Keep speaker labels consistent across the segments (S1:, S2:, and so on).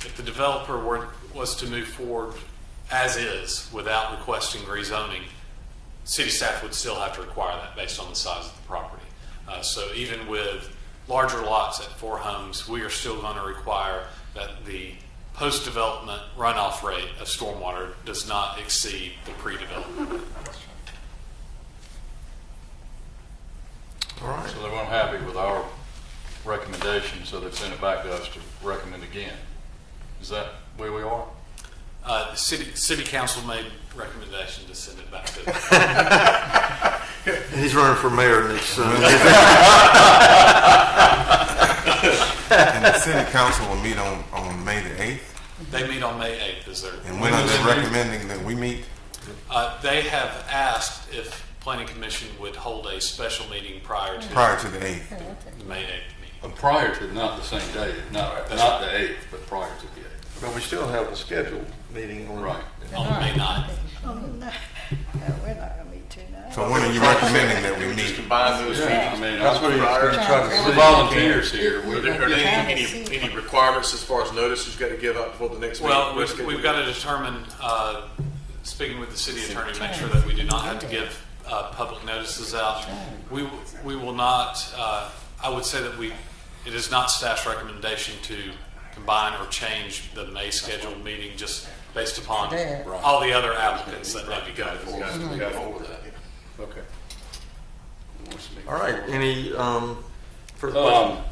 S1: if the developer were, was to move forward as is without requesting rezoning, city staff would still have to require that based on the size of the property. Uh, so even with larger lots at four homes, we are still going to require that the post-development runoff rate of stormwater does not exceed the pre-development.
S2: All right,
S3: So they weren't happy with our recommendation, so they sent it back to us to recommend again. Is that where we are?
S1: Uh, the city, city council made recommendation to send it back to
S2: and he's running for mayor next, uh,
S4: And the city council will meet on, on May the eighth,
S1: They meet on May 8th, is there?
S4: and when are they recommending that we meet?
S1: Uh, They have asked if planning commission would hold a special meeting prior to
S4: Prior to the eighth.
S1: the May 8th meeting.
S3: Uh, Prior to, not the same day, not, not the eighth, but prior to the eighth.
S2: but we still have a scheduled meeting on.
S3: Right.
S1: On May 9th,
S5: Oh, no, no, we're not gonna meet tonight.
S4: So when are you recommending that we meet?
S6: Combine those
S3: I
S6: meetings.
S3: mean,
S2: That's what he's
S6: Prior-
S2: been trying to
S3: we're
S2: say.
S3: volunteers here.
S6: Are
S3: We're-
S6: there are there any,
S5: Yeah.
S6: any, any requirements as far as notices you gotta give out before the next meeting?
S1: well,
S6: Let's
S1: we've,
S6: get
S1: we've
S6: it.
S1: got to determine, uh, speaking with the city attorney, to make sure that we do not have to give uh, public notices out. We, w- we will not, uh, I would say that we, it is not staff's recommendation to combine or change the May scheduled meeting just based upon all the other applicants that may be going
S6: We
S1: forward.
S6: got- we got over that.
S3: Okay.
S2: All right, any, um, further questions?
S3: Um,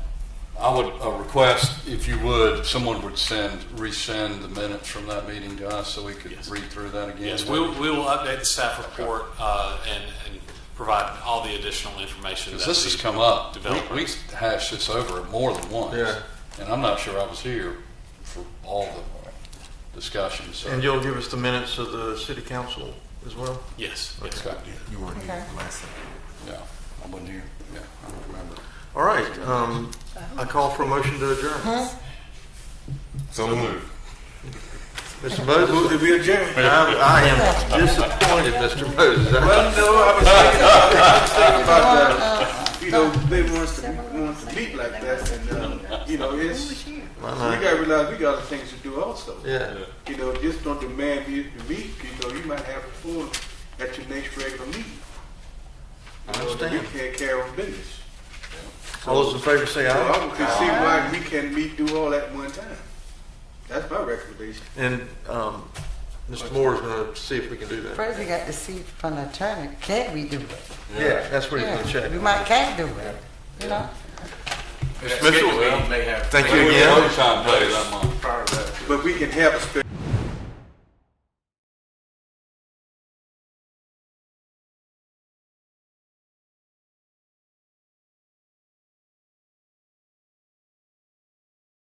S3: I would uh, request, if you would, someone would send, resend the minutes from that meeting to us so we could read through that again.
S1: Yes, we, we will update the staff report uh, and, and provide all the additional information.
S3: Because
S1: that
S3: this
S1: we-
S3: has come up,
S1: developers.
S3: we, we hashed this over more than once.
S2: Yeah.
S3: And I'm not sure I was here for all the discussions, so.
S2: And you'll give us the minutes of the city council as well?
S1: Yes, yes.
S3: Okay,
S4: You weren't here last time.
S3: yeah, I wasn't here, yeah, I don't remember.
S2: All right, um, I call for a motion to adjourn.
S4: So moved.
S2: Mr. Moses? Did we adjourn? I am disappointed, Mr. Moses. I-
S7: Well, no, I was thinking, I was thinking about, uh, you know, they want us to, be- want us to meet like that, and, uh, you know, it's, we
S2: Why not?
S7: gotta realize we got other things to do also.
S2: Yeah,
S7: You know, just don't demand you to meet, you know, you might have a full at your next regular meeting.
S2: I
S7: You know, You
S2: understand.
S7: can't carry on business.
S2: All those in favor say
S7: So
S2: aye.
S7: I can see why we can't meet, do all at one time. That's my recommendation.
S2: And, um, Mr. Moore's gonna see if we can do that.
S8: First, we got to see from the attorney, can we do it?
S2: Yeah, that's what he's gonna
S8: Yeah,
S2: check.
S8: We might can't do it, you know?
S6: Next meeting may have.
S2: Thank you again.
S3: Time, Dave, that month.
S7: But we can have a special